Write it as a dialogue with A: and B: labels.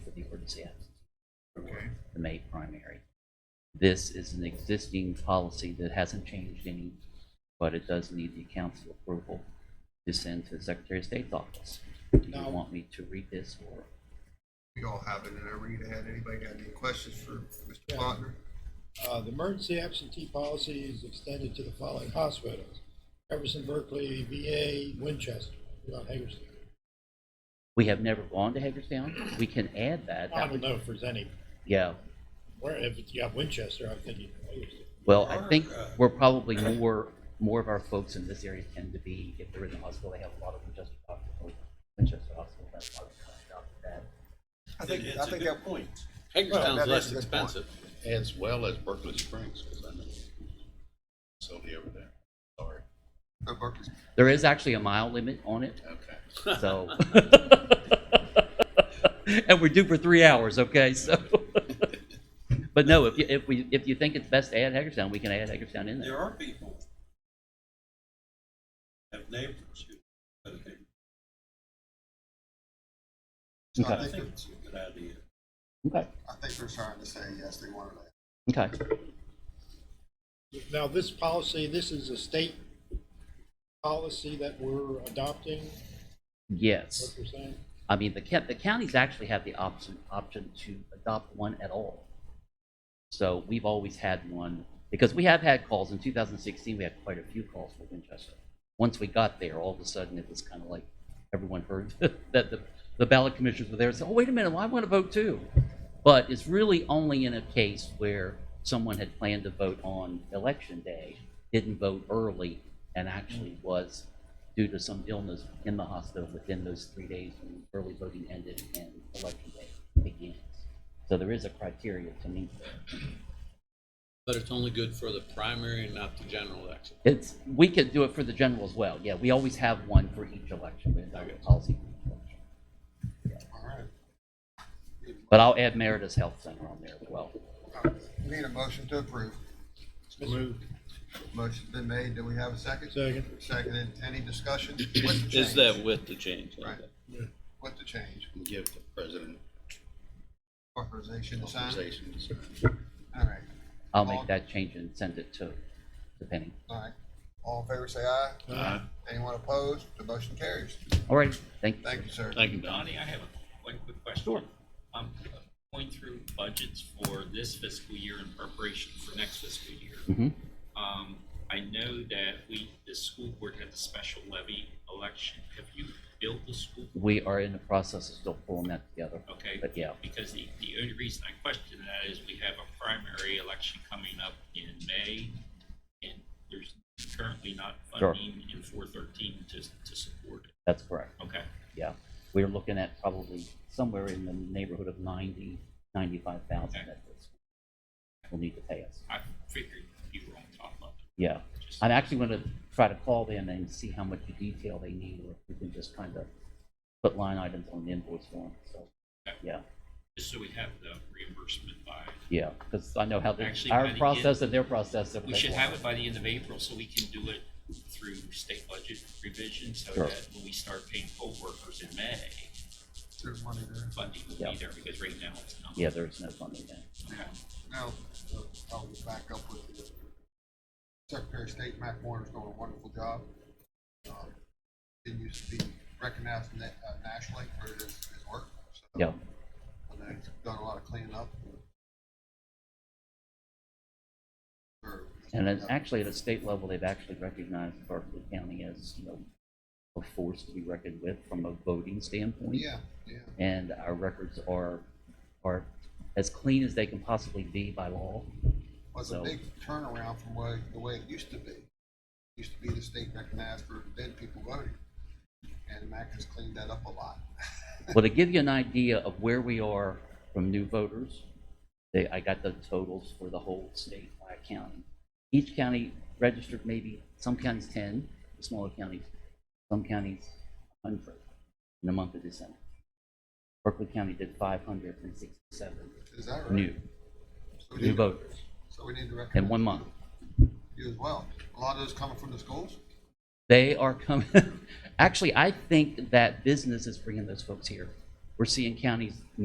A: of the ordinance ends,
B: Okay,
A: the May primary. This is an existing policy that hasn't changed any, but it does need the council approval to send to the Secretary of State's office. Do you
B: No.
A: want me to read this or?
B: we all have it in our read ahead. Anybody got any questions for Mr. Plonner?
C: Uh, the emergency absentee policy is extended to the following hospitals. Jefferson Berkeley, VA, Winchester, not Hagerstown.
A: We have never gone to Hagerstown. We can add that.
C: I
A: That
C: don't
A: would-
C: know if there's any,
A: Yeah,
C: where, if you got Winchester, I'm thinking Hagerstown.
A: well, I think we're probably more, more of our folks in this area tend to be, if they're in the hospital, they have a lot of Winchester Hospital. Winchester Hospital, that's why we cut it out of that.
B: I think, I
D: It's a
B: think
D: good
B: that,
D: point.
B: Well, that
D: Hagerstown's
B: is
D: less
B: a good point.
D: expensive.
E: as well as Berkeley Springs, because I know Sylvia over there. Sorry.
B: no, Berkeley's,
A: There is actually a mile limit on it,
E: Okay.
A: so. And we're due for three hours, okay, so. But no, if, you- if we, if you think it's best to add Hagerstown, we can add Hagerstown in there.
D: There are people. Have neighbors who. but they-
B: so I
D: I
B: think,
D: think it's a good idea.
A: Okay,
B: I think they're trying to say, yes, they wanted that.
A: okay.
C: Now, this policy, this is a state policy that we're adopting,
A: Yes.
C: what you're saying?
A: I mean, the, ca- the counties actually have the option, option to adopt one at all. So we've always had one, because we have had calls, in 2016, we had quite a few calls for Winchester. Once we got there, all of a sudden, it was kind of like, everyone heard that the, the ballot commissioners were there, and said, oh, wait a minute, well, I want to vote too. But it's really only in a case where someone had planned to vote on election day, didn't vote early, and actually was due to some illness in the hospital within those three days when early voting ended and election day begins. So there is a criteria to meet.
D: But it's only good for the primary and not the general election.
A: It's, we could do it for the general as well. Yeah, we always have one for each election, but it's not a policy for each election.
B: All right.
A: But I'll add Merida's Health Center on there as well.
B: All right. We Need a motion to approve.
C: Moved.
B: Motion's been made. Do we have a second?
C: Second.
B: Seconded. Any discussion? With the
D: Is
B: change.
D: that with the change?
B: Right. With the change.
E: Give the president
B: Authorization to sign.
E: authorization to sign.
B: All right,
A: I'll make that change and send it to, to Penny.
B: all right. All in favor, say aye.
C: Aye.
B: Anyone opposed? The motion carries.
A: All right, thank you.
B: Thank you, sir.
E: Thank you, Don.
F: Donnie, I have a- one quick question. I'm going through budgets for this fiscal year in preparation for next fiscal year.
A: Mhm.
F: Um, I know that we, the school board had the special levy election. Have you billed the school?
A: We are in the process of still pulling that together.
F: Okay.
A: But yeah.
F: Because the, the only reason I question that is we have a primary election coming up in May, and there's currently not
A: Sure.
F: funding in four thirteen to, to support it.
A: That's correct.
F: Okay.
A: Yeah, we're looking at probably somewhere in the neighborhood of ninety, ninety-five thousand that this will need to pay us.
F: I figured you were on top of it.
A: Yeah,
F: Just-
A: I'm actually gonna try to call them and see how much detail they need, or if we can just kind of put line items on the invoice form, so, yeah,
F: Just so we have the reimbursement by,
A: yeah, because I know how they,
F: Actually, by the
A: our
F: end-
A: process and their process.
F: we should have it by the end of April, so we can do it through state budget revision, so
A: Sure.
F: that when we start paying poll workers in May,
B: There's money there.
F: funding will
A: Yeah.
F: be there, because right now it's not.
A: Yeah, there's no funding there.
B: Now, now, uh, I'll back up with you. Secretary of State Mac Warner's doing a wonderful job. Um, Continues to be recognized na- uh, nationally for his, his work. So,
A: Yeah,
B: I know he's done a lot of cleaning up. Or-
A: and then actually at a state level, they've actually recognized Berkeley County as, you know, a force to be reckoned with from a voting standpoint.
B: Yeah, yeah.
A: and our records are, are as clean as they can possibly be by law.
B: was a
A: So-
B: big turnaround from way, the way it used to be. Used to be the state recognized for dead people voting, and Mac has cleaned that up a lot.
A: Well, to give you an idea of where we are from new voters, they, I got the totals for the whole state by county. Each county registered maybe, some counties ten, the smaller counties, some counties hundred in the month of December. Berkeley County did five hundred and sixty-seven
B: Is that right?
A: new,
B: So we
A: new
B: need-
A: voters
B: So we need to
A: in
B: recognize
A: one month.
B: you as well. A lot of those coming from the schools.
A: They are coming. Actually, I think that business is bringing those folks here. We're seeing counties